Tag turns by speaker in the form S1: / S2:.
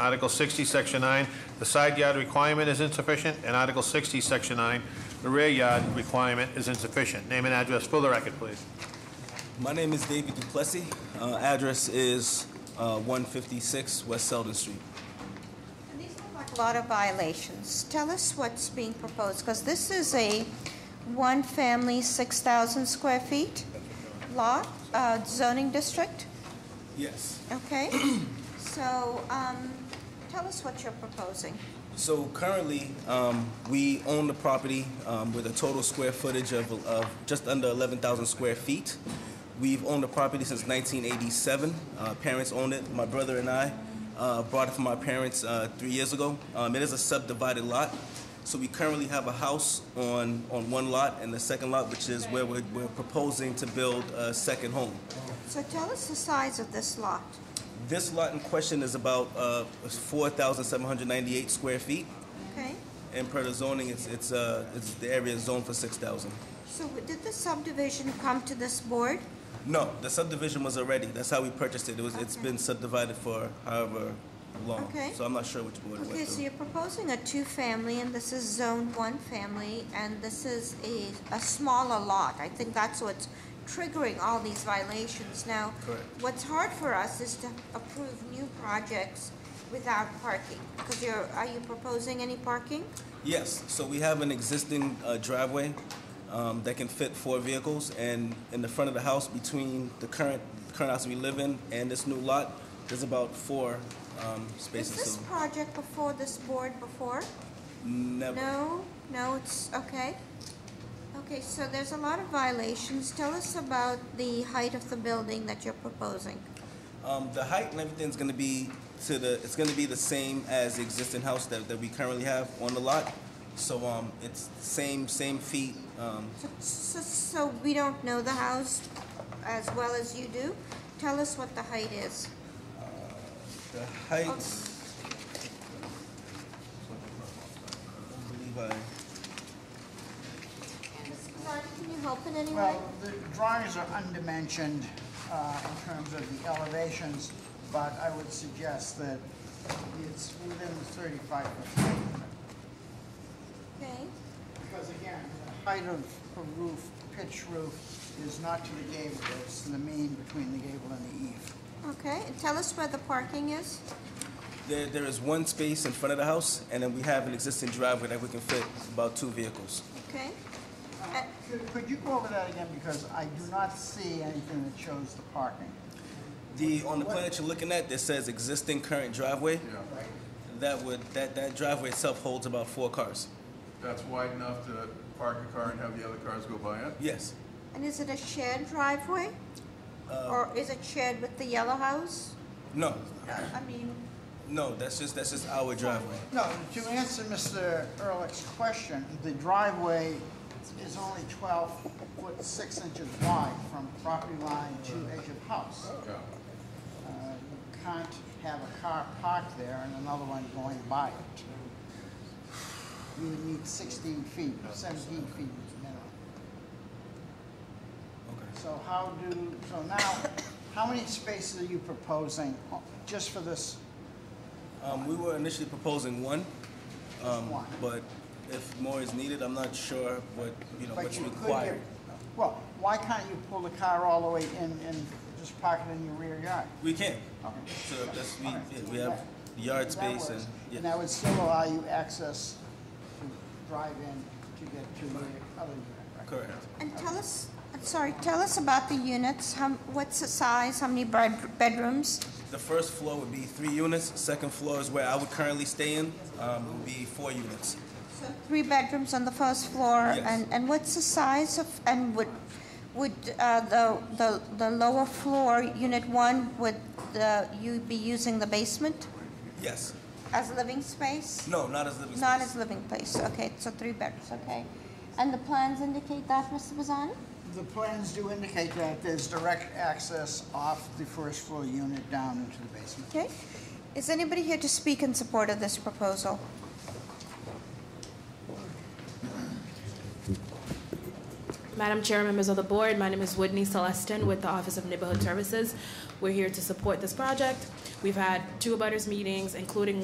S1: Article 60, Section 9, the side yard requirement is insufficient, and Article 60, Section 9, the rear yard requirement is insufficient. Name and address for the record, please.
S2: My name is David Duplessis. Uh, address is uh, 156 West Selden Street.
S3: And These look like a lot of violations. Tell us what's being proposed, because this is a one-family, 6,000 square feet lot, uh, zoning district,
S2: Yes.
S3: okay? So um, tell us what you're proposing.
S2: So currently, um, we own the property um, with a total square footage of, of just under 11,000 square feet. We've owned the property since 1987. Uh, parents owned it. My brother and I uh, bought it from my parents uh, three years ago. Um, it is a subdivided lot. So we currently have a house on, on one lot and the second lot, which is where we're, we're proposing to build a second home.
S3: So tell us the size of this lot.
S2: This lot in question is about uh, 4,798 square feet,
S3: Okay?
S2: and per the zoning, it's, it's, uh, it's the area is zoned for 6,000.
S3: So did the subdivision come to this board?
S2: No, the subdivision was already, that's how we purchased it. It was, it's
S3: Okay.
S2: been subdivided for however long.
S3: Okay.
S2: So I'm not sure which board it
S3: Okay,
S2: went
S3: so
S2: through.
S3: you're proposing a two-family, and this is zone one family, and this is a, a smaller lot. I think that's what's triggering all these violations. Now,
S2: Correct.
S3: what's hard for us is to approve new projects without parking, because you're, are you proposing any parking?
S2: Yes, so we have an existing uh, driveway um, that can fit four vehicles, and in the front of the house, between the current, current house we live in and this new lot, there's about four um,
S3: Is
S2: spaces.
S3: this
S2: So
S3: project before this board before?
S2: Never.
S3: No, no, it's, okay. Okay, so there's a lot of violations. Tell us about the height of the building that you're proposing.
S2: Um, the height and everything's gonna be to the, it's gonna be the same as the existing house that, that we currently have on the lot. So, um, it's same, same feet, um,
S3: So, so we don't know the house as well as you do? Tell us what the height is.
S2: the height. I believe I,
S3: Ms. Guzardi, can you help in any way?
S4: Well, the drawings are undimensioned uh, in terms of the elevations, but I would suggest that it's within the 35-foot height limit.
S3: Okay,
S4: Because again, the height of a roof, pitch roof, is not to the gable, it's the mean between the gable and the eave.
S3: okay, and tell us where the parking is?
S2: there, there is one space in front of the house, and then we have an existing driveway that we can fit about two vehicles.
S3: Okay?
S4: Uh, could- Could you go over that again, because I do not see anything that shows the parking.
S2: The, on the plan that you're looking at, that says existing current driveway.
S4: Right.
S2: That would, that, that driveway itself holds about four cars.
S5: That's wide enough to park a car and have the other cars go by it?
S2: Yes.
S3: And is it a shared driveway? Or is it shared with the yellow house?
S2: No,
S3: I mean,
S2: no, that's just, that's just our driveway.
S4: No, to answer Mr. Ehrlich's question, the driveway is only 12 foot 6 inches wide from property line to edge of house.
S5: Yeah.
S4: Uh, You can't have a car parked there and another one going by it. You would need 16 feet, 17 feet minimum.
S2: Okay.
S4: So how do, so now, how many spaces are you proposing uh, just for this
S2: Um, we were initially proposing one, um,
S4: one?
S2: but if more is needed, I'm not sure what, you know,
S4: But
S2: what's
S4: you could
S2: required.
S4: get- Well, why can't you pull the car all the way in and just park it in your rear yard?
S2: We can,
S4: Okay.
S2: so that's, we,
S4: Alright.
S2: yeah, we have yard
S4: That
S2: space and,
S4: works. And
S2: yeah.
S4: that would still allow you access to drive in to get to the other unit, right?
S2: Correct.
S3: and tell us, I'm sorry, tell us about the units, how, what's the size, how many bed- bedrooms?
S2: The first floor would be three units, second floor is where I would currently stay in, um, would be four units.
S3: So Three bedrooms on the first floor,
S2: Yes.
S3: and, and what's the size of, and would, would uh, the, the, the lower floor, unit one, would the, you be using the basement
S2: Yes,
S3: as living space?
S2: no, not as living
S3: Not
S2: space.
S3: as living place, okay, so three bedrooms, okay. And the plans indicate that, Mr. Bazzani?
S4: The plans do indicate that there's direct access off the first floor unit down into the basement.
S3: Okay. Is anybody here to speak in support of this proposal?
S6: Madam Chair, members of the board, my name is Whitney Celestin with the Office of Neighborhood Services. We're here to support this project. We've had two abutters meetings, including